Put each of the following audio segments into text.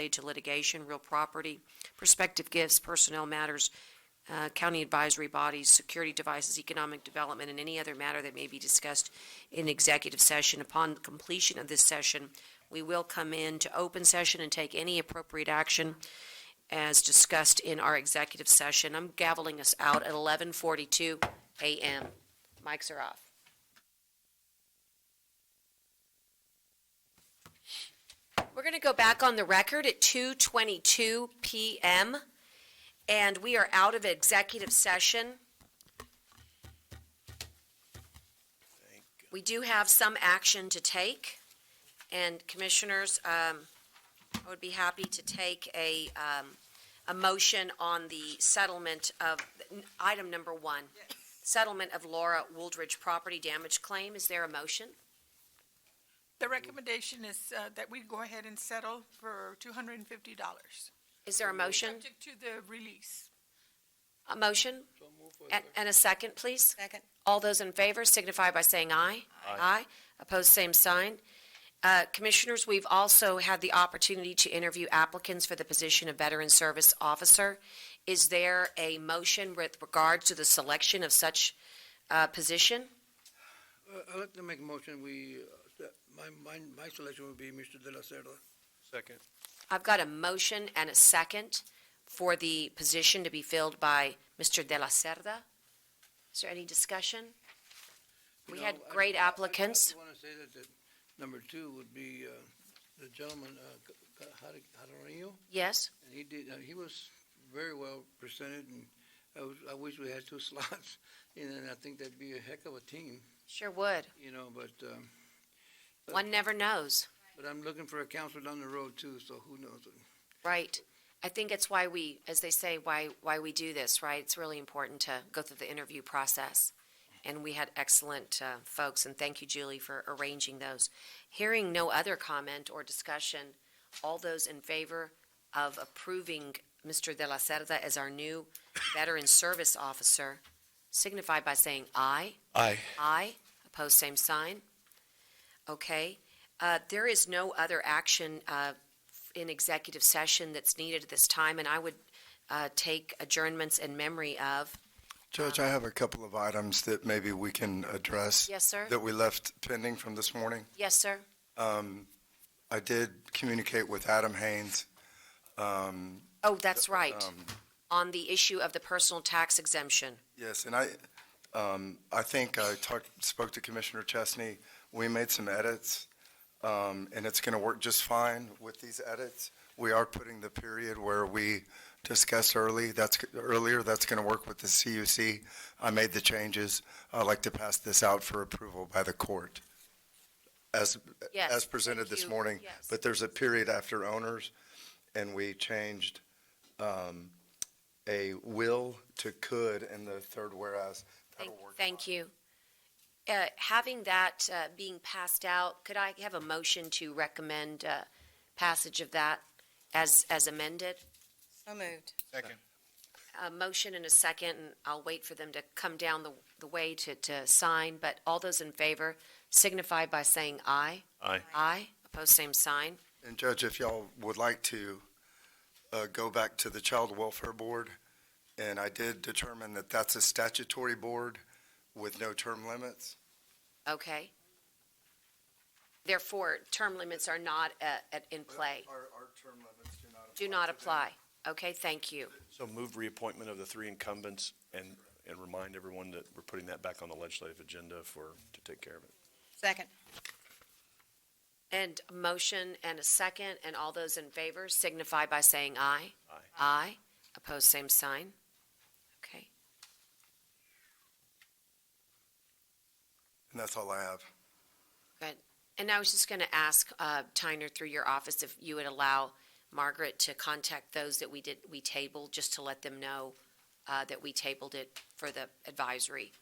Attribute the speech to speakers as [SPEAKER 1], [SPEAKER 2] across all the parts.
[SPEAKER 1] related to litigation, real property, prospective gifts, personnel matters, uh, county advisory bodies, security devices, economic development, and any other matter that may be discussed in executive session. Upon completion of this session, we will come into open session and take any appropriate action as discussed in our executive session. I'm gaveling us out at 11:42 a.m. Mics are off. We're going to go back on the record at 2:22 p.m. and we are out of executive session. We do have some action to take, and commissioners, um, I would be happy to take a, um, a motion on the settlement of, item number one. Settlement of Laura Wooldridge property damage claim. Is there a motion?
[SPEAKER 2] The recommendation is uh, that we go ahead and settle for two hundred and fifty dollars.
[SPEAKER 1] Is there a motion?
[SPEAKER 2] Subject to the release.
[SPEAKER 1] A motion? And, and a second, please? Second. All those in favor signify by saying aye. Aye. Opposed, same sign. Uh, Commissioners, we've also had the opportunity to interview applicants for the position of Veteran Service Officer. Is there a motion with regards to the selection of such, uh, position?
[SPEAKER 3] Uh, I'd like to make a motion, we, uh, that my, my, my selection would be Mr. De La Cerda.
[SPEAKER 4] Second.
[SPEAKER 1] I've got a motion and a second for the position to be filled by Mr. De La Cerda. Is there any discussion?
[SPEAKER 3] You
[SPEAKER 1] We
[SPEAKER 3] know,
[SPEAKER 1] had
[SPEAKER 3] I-
[SPEAKER 1] great
[SPEAKER 3] I- I-
[SPEAKER 1] applicants.
[SPEAKER 3] I want to say that, that number two would be, uh, the gentleman, uh, C- C- Har- Jaramillo,
[SPEAKER 1] Yes?
[SPEAKER 3] and he did, uh, he was very well presented, and I, was- I wish we had two slots, and then I think that'd be a heck of a team,
[SPEAKER 1] Sure would.
[SPEAKER 3] you know, but, um,
[SPEAKER 1] One never knows,
[SPEAKER 3] but I'm looking for a counselor down the road too, so who knows?
[SPEAKER 1] right? I think it's why we, as they say, why, why we do this, right? It's really important to go through the interview process. And we had excellent uh, folks, and thank you, Julie, for arranging those. Hearing no other comment or discussion, all those in favor of approving Mr. De La Cerda as our new Veteran Service Officer signify by saying aye.
[SPEAKER 4] Aye.
[SPEAKER 1] Aye. Opposed, same sign. Okay. Uh, There is no other action uh, in executive session that's needed at this time, and I would uh, take adjournments in memory of,
[SPEAKER 5] Judge, I have a couple of items that maybe we can address.
[SPEAKER 1] Yes, sir.
[SPEAKER 5] That we left pending from this morning.
[SPEAKER 1] yes, sir?
[SPEAKER 5] Um, I did communicate with Adam Haynes. Um,
[SPEAKER 1] Oh, that's right,
[SPEAKER 5] um,
[SPEAKER 1] on the issue of the personal tax exemption.
[SPEAKER 5] Yes, and I, um, I think I talked, spoke to Commissioner Chesney. We made some edits, um, and it's going to work just fine with these edits. We are putting the period where we discussed early, that's, earlier, that's going to work with the CUC. I made the changes. I'd like to pass this out for approval by the court as,
[SPEAKER 1] Yes,
[SPEAKER 5] as presented
[SPEAKER 1] thank
[SPEAKER 5] this
[SPEAKER 1] you.
[SPEAKER 5] morning.
[SPEAKER 1] Yes.
[SPEAKER 5] But there's a period after owners, and we changed um, a will to could in the third whereas.
[SPEAKER 1] Thank-
[SPEAKER 5] That'll work
[SPEAKER 1] Thank you. Uh, Having that uh, being passed out, could I have a motion to recommend uh, passage of that as as amended?
[SPEAKER 6] So moved.
[SPEAKER 4] Second.
[SPEAKER 1] a motion and a second, and I'll wait for them to come down the, the way to, to sign, but all those in favor signify by saying aye.
[SPEAKER 4] Aye.
[SPEAKER 1] Aye, opposed, same sign.
[SPEAKER 5] And Judge, if y'all would like to uh, go back to the Child Welfare Board, and I did determine that that's a statutory board with no term limits.
[SPEAKER 1] Okay. Therefore, term limits are not uh, at- in play,
[SPEAKER 5] Our, our term limits do not apply.
[SPEAKER 1] do not
[SPEAKER 5] to them.
[SPEAKER 1] apply. Okay, thank you.
[SPEAKER 4] So move reappointment of the three incumbents and, and remind everyone that we're putting that back on the legislative agenda for, to take care of it.
[SPEAKER 6] Second.
[SPEAKER 1] And a motion and a second, and all those in favor signify by saying aye.
[SPEAKER 4] Aye.
[SPEAKER 1] Aye, opposed, same sign. Okay,
[SPEAKER 5] And that's all I have.
[SPEAKER 1] Good. And I was just going to ask, uh, Tyner, through your office, if you would allow Margaret to contact those that we did, we tabled, just to let them know uh, that we tabled it for the advisory.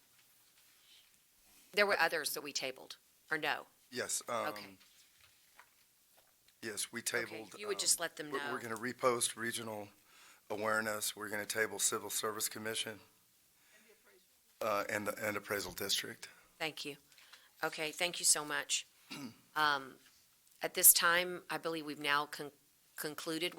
[SPEAKER 1] There were others that we tabled, or no?
[SPEAKER 5] Yes, um,
[SPEAKER 1] Okay.
[SPEAKER 5] yes, we
[SPEAKER 1] Okay.
[SPEAKER 5] tabled.
[SPEAKER 1] You would
[SPEAKER 5] um,
[SPEAKER 1] just let them know.
[SPEAKER 5] We're, we're gonna repost regional awareness, we're gonna table civil service commission, uh, and, the- and appraisal district.
[SPEAKER 1] Thank you. Okay, thank you so much. Um, At this time, I believe we've now con- concluded